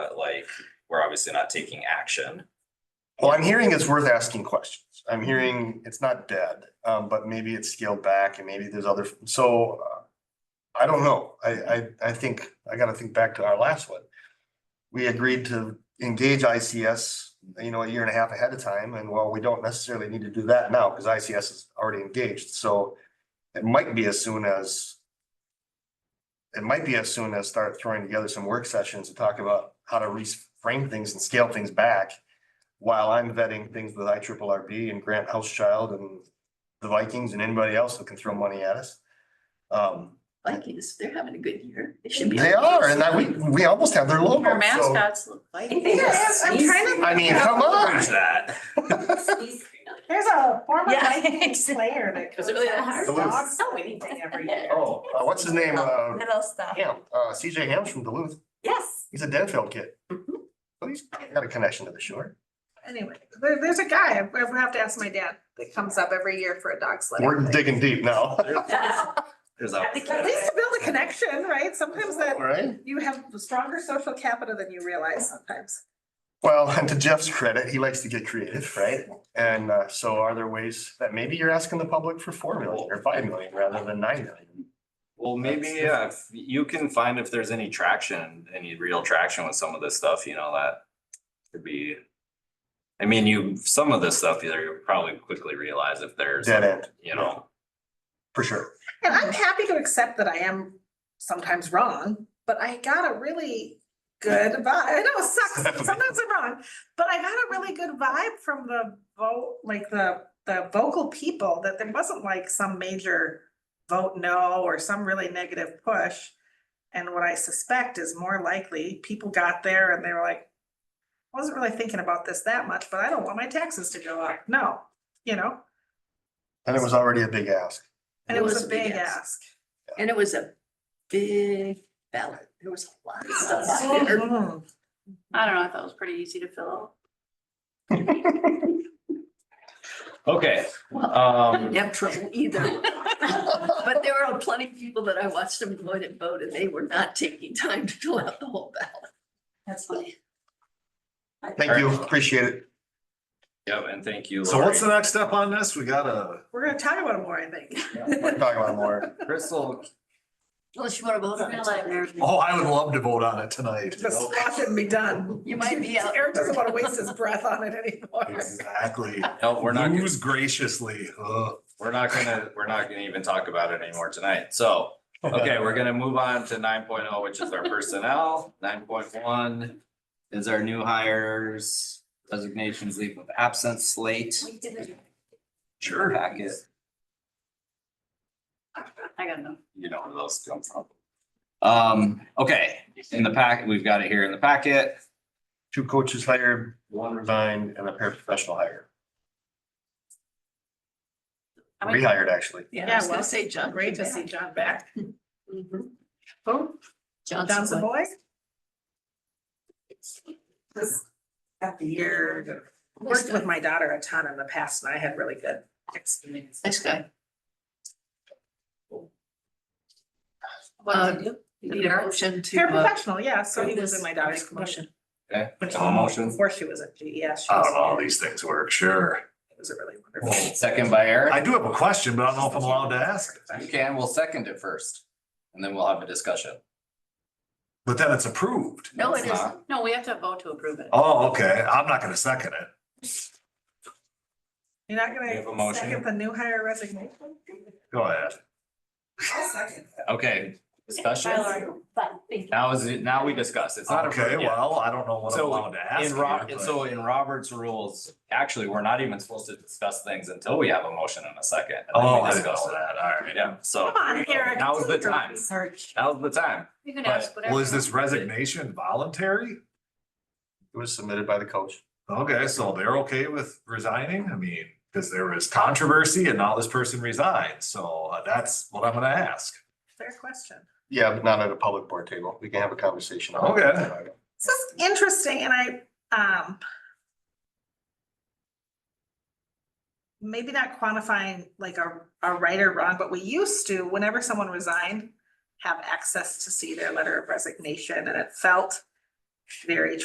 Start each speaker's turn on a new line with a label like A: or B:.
A: right? We're obviously not taking action.
B: Well, I'm hearing it's worth asking questions. I'm hearing it's not dead, um, but maybe it's scaled back and maybe there's other, so. uh, I don't know. I, I, I think, I gotta think back to our last one. We agreed to engage ICS, you know, a year and a half ahead of time, and well, we don't necessarily need to do that now, because ICS is already engaged, so. It might be as soon as. It might be as soon as start throwing together some work sessions to talk about how to reframe things and scale things back while I'm vetting things with I and Grant Housechild and the Vikings and anybody else that can throw money at us. Um,
C: Vikings, they're having a good year. They should be.
B: they are, and that we, we almost have their logo.
C: Our
B: Oh, so-
C: mascots look Vikings.
D: Yes.
E: I'm trying to.
B: I mean,
E: figure out-
B: come on.
A: Where's that?
E: There's a former
D: Yeah.
E: Vikings player that.
C: Was it really that hard?
E: Dogs
D: Duluth.
E: winning every year.
B: Oh, uh, what's his name? Uh,
D: Little stuff.
B: Ham, uh, CJ Ham's from Duluth.
D: Yes.
B: He's a Denfeld kid.
C: Mhm.
B: So he's got a connection to the shore.
E: Anyway, there, there's a guy, I I have to ask my dad, that comes up every year for a dog sled.
B: We're digging deep now,
A: There's
E: At
A: that.
E: least to build a connection, right? Sometimes that,
B: right?
E: you have stronger social capital than you realize sometimes.
B: Well, and to Jeff's credit, he likes to get creative, right? And uh, so are there ways that maybe you're asking the public for four million or five million rather than nine million?
A: Well, maybe, yeah, if you can find if there's any traction, any real traction with some of this stuff, you know, that could be. I mean, you, some of this stuff, you'll probably quickly realize if there's,
B: Dead end,
A: you know,
B: for sure.
E: And I'm happy to accept that I am sometimes wrong, but I got a really good vibe. I know it sucks. Sometimes I'm wrong, but I got a really good vibe from the vote, like the, the vocal people that there wasn't like some major vote no or some really negative push. And what I suspect is more likely, people got there and they were like, I wasn't really thinking about this that much, but I don't want my taxes to go up. No, you know,
B: And it was already a big ask.
E: and it was a big ask.
C: And it was a big ballot. There was a lot of stuff on there.
E: Mhm.
F: I don't know, I thought it was pretty easy to fill out.
A: okay,
C: Well, I
A: um.
C: didn't have trouble either. But there were plenty of people that I watched them go in and vote and they were not taking time to fill out the whole ballot.
F: That's funny.
B: Thank you, appreciate it.
A: Yeah, and thank you.
G: So what's the
A: Lori.
G: next step on this? We gotta,
E: We're gonna talk about it more, I think.
B: We're talking about more.
A: Crystal,
C: Unless you want to vote on it.
G: oh, I would love to vote on it tonight.
E: Just watch it and be done.
C: You might be out.
E: Eric doesn't wanna waste his breath on it anymore.
G: Exactly.
A: no, we're not, gonna-
G: Lose graciously. Ugh.
A: we're not gonna, we're not gonna even talk about it anymore tonight, so. Okay, we're gonna move on to nine oh, which is our personnel. Nine point one is our new hires, resignations, leave of absence slate. Sure. Packet,
F: I gotta know.
A: you know where those come from. Um, okay, in the packet, we've got it here in the packet.
B: Two coaches hired, one resigned, and a paraprofessional hired.
F: I mean,
B: Rehired, actually.
C: Yeah, I was
E: well,
C: gonna say John.
E: Great to
C: came
E: see
C: back.
E: John back.
C: Mhm.
E: Oh, John's a
C: Johnson.
E: boy?
D: At the
E: You're, worked with my daughter a ton in the past and I had really good experience.
C: Nice guy.
F: what
C: Uh,
F: did you do?
C: You need a motion Uh, to. uh,
E: Paraprofessional, yeah, so he was in my daughter's commotion.
A: Okay,
E: When she-
A: have a motion.
E: Before she was at GES. she
G: I
E: was-
G: don't know how these things work, sure.
E: It was a really wonderful.
A: Second by
G: I
A: Eric.
G: do have a question, but I don't know if I'm allowed to ask. it.
A: You can, we'll second it first, and then we'll have a discussion.
G: But then it's approved.
C: No, it
A: It's
C: isn't.
A: not.
F: No, we have to vote to approve it.
G: Oh, okay. I'm not gonna second it.
E: You're not
A: We have a
E: gonna
A: motion.
E: second the new hire resignation?
G: Go ahead.
A: Okay, discussion. Now is it, now we discuss. It's not.
G: Okay,
A: approved yet.
G: well, I don't know what I'm
A: So,
G: allowed to ask.
A: In Rob,
G: here, but-
A: so in Robert's rules, actually, we're not even supposed to discuss things until we have a motion in a second. and then we
G: Oh, I didn't know
A: discuss it.
G: that. All right.
A: Yeah, so
E: Come on, Eric.
A: Now is the
E: do your
A: time.
E: Research.
A: that was the time.
F: You can ask whatever.
G: Well, is this resignation voluntary?
B: It was submitted by the coach.
G: Okay, so they're okay with resigning? I mean, because there was controversy and now this person resigned, so uh, that's what I'm gonna ask.
E: Fair question.
B: Yeah, but not at a public board table. We can have a conversation. about
G: Okay.
B: that.
E: This is interesting and I, um. Maybe not quantifying like a, a right or wrong, but we used to, whenever someone resigned, have access to see their letter of resignation and it felt very